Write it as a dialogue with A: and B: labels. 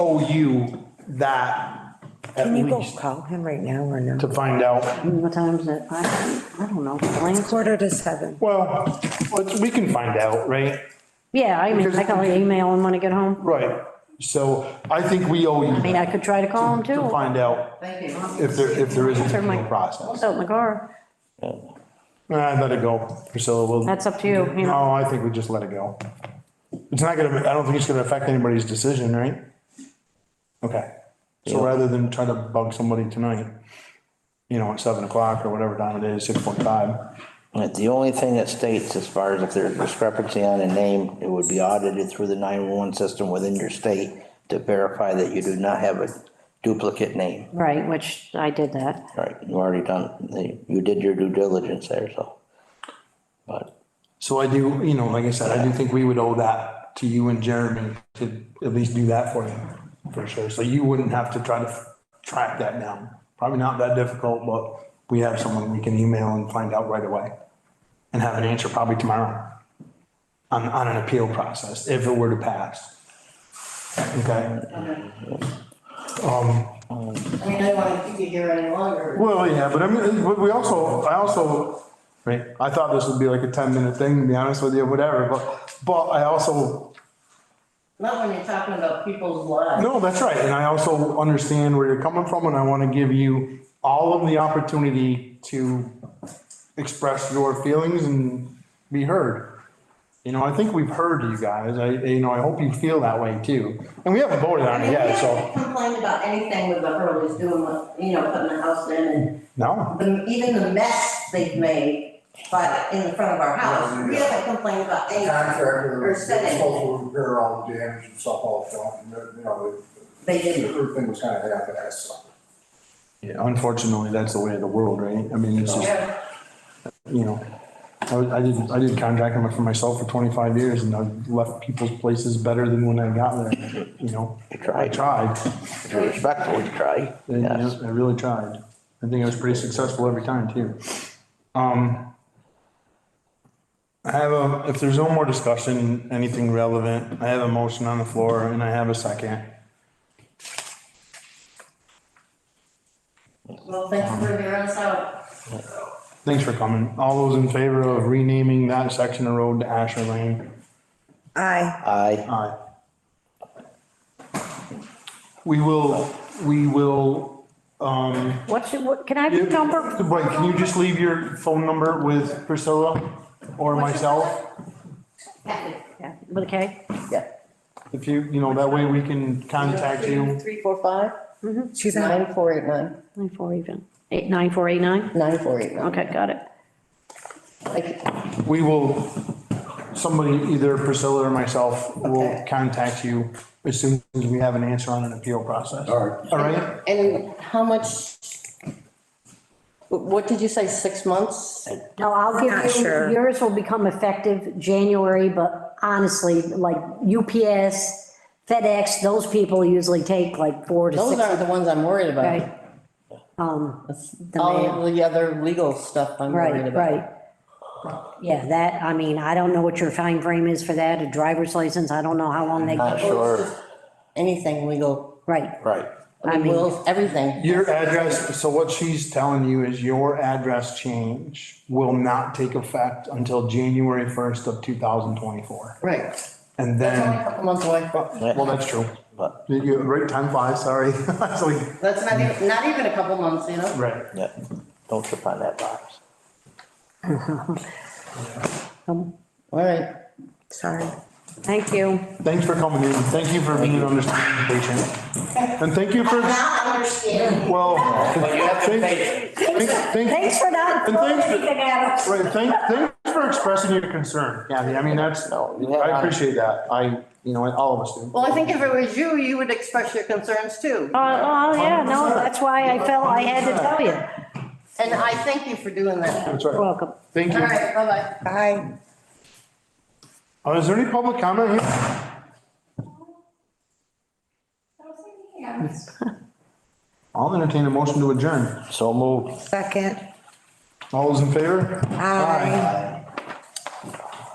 A: owe you that at
B: Can you go
A: least
B: call him right now or no?
A: to find out.
C: What time is it? I, I don't know. Blaine's-
B: Quarter to seven.
A: Well, let's- we can find out, right?
C: Yeah, I mean, I can only email him when I get home.
A: Right. So I think we owe
C: I mean,
A: you
C: I could try to call him
A: to
C: too.
A: find out
D: Thank you.
A: if there, if there is a
C: Sure, Mike.
A: process.
C: Out in the car.
A: Nah, let it go, Priscilla. We'll.
C: That's up to you, you know.
A: No, I think we just let it go. It's not gonna, I don't think it's gonna affect anybody's decision, right? Okay, so rather than try to bug somebody tonight, you know, at seven o'clock or whatever time it is, six forty-five,
E: But The only thing that states as far as if there's discrepancy on a name, it would be audited through the nine-one-one system within your state to verify that you do not have a duplicate name.
C: Right, which I did that.
E: All right, you already done, you did your due diligence there, so. But,
A: so I do, you know, like I said, I do think we would owe that to you and Jeremy to at least do that for you, for sure, so you wouldn't have to try to f- track that down. Probably not that difficult, but we have someone we can email and find out right away, and have an answer probably tomorrow. on, on an appeal process, if it were to pass. Okay, um,
D: I mean, I want to keep you here any longer.
A: well, yeah, but I mean, but we also, I also, right, I thought this would be like a ten minute thing, to be honest with you, whatever, but, but I also,
D: Not when you're talking about people's lives.
A: no, that's right, and I also understand where you're coming from, and I wanna give you all of the opportunity to express your feelings and be heard. You know, I think we've heard you guys, I, you know, I hope you feel that way too, and we haven't voted
D: I
A: on
D: mean,
A: it
D: we
A: yet, so.
D: haven't complained about anything with the Hurleys doing, what- you know, putting the house in
A: No,
D: and the- even the mess they've made by, in the front of our house. We haven't complained about anything.
F: contractor,
D: Or
F: was
D: send it.
F: supposed to repair all the damage and stuff all the time, and, you know,
D: They
F: the
D: didn't.
F: everything was kind of half-assed, so.
A: Yeah, unfortunately, that's the way of the world, right? I mean, it's just,
D: Yeah.
A: you know, I, was- I did, I did contracting for myself for twenty-five years and I left people's places better than when I got there, you know? I
E: tried.
A: tried,
E: if you're respectful, you try,
A: and, you know,
E: yes.
A: I really tried. I think I was pretty successful every time too. Um, I have a, if there's no more discussion, anything relevant, I have a motion on the floor and I have a second.
D: Well, thanks for hearing us out.
A: Thanks for coming. All those in favor of renaming that section of road to Asher Lane?
B: Aye.
E: I,
A: Aye. We will, we will, um,
C: What's your, what, can I have your number?
A: wait, can you just leave your phone number with Priscilla or myself?
C: Yeah, With a K?
A: If you, you know, that way we can contact you.
G: Three, four, five,
B: She's on.
G: nine, four, eight, nine,
C: Nine four even. Eight, nine four eight nine?
G: nine, four, eight, nine.
C: Okay, got it.
G: Like,
A: We will, somebody, either Priscilla or myself, will
G: Okay.
A: contact you as soon as we have an answer on an appeal process. All right. All right?
G: And how much? What did you say, six months?
C: No, I'll
B: Not
C: give you,
B: sure.
C: yours will become effective January, but honestly, like UPS, FedEx, those people usually take like four to
G: Those
C: six.
G: aren't the ones I'm worried about.
C: Right, um,
G: That's
C: The
G: All the other legal stuff I'm worried
C: right,
G: about.
C: right. Yeah, that, I mean, I don't know what your time frame is for that, a driver's license, I don't know how long they,
E: not sure,
G: Anything legal,
C: right.
E: right.
C: I
G: I mean,
C: mean-
G: wills, everything.
A: Your address, so what she's telling you is your address change will not take effect until January first of two thousand twenty-four.
G: Right.
A: And
G: It's only a
A: then,
G: couple months away.
A: well, that's true.
E: But,
A: You- you- right, time flies, sorry. It's like-
G: That's not even, not even a couple months, you know?
A: Right.
E: yeah, don't trip on that box.
G: All right.
B: Sorry.
C: Thank you.
A: Thanks for coming in. Thank you for being understanding and patient. And thank you for,
D: Now I understand.
A: well, thanks, thanks-
C: Thanks for not
A: And
C: throwing
A: thanks for-
C: anything at us.
A: Right, thank, thanks for expressing your concern, Kathy. I mean, that's, I appreciate that. I, you know, all of us do.
G: Well, I think if it was you, you would express your concerns too.
C: Uh, oh, yeah, no,
A: 100%.
C: that's why I felt I had to tell you.
G: And I thank you for doing that.
A: That's
C: You're
A: right.
C: Welcome.
A: Thank
G: All
A: you.
G: right, bye-bye.
B: Aye.
A: Uh, Is there any public comment here? I'll entertain a motion to adjourn.
E: So moved.
B: Second.
A: All those in favor?
B: Aye.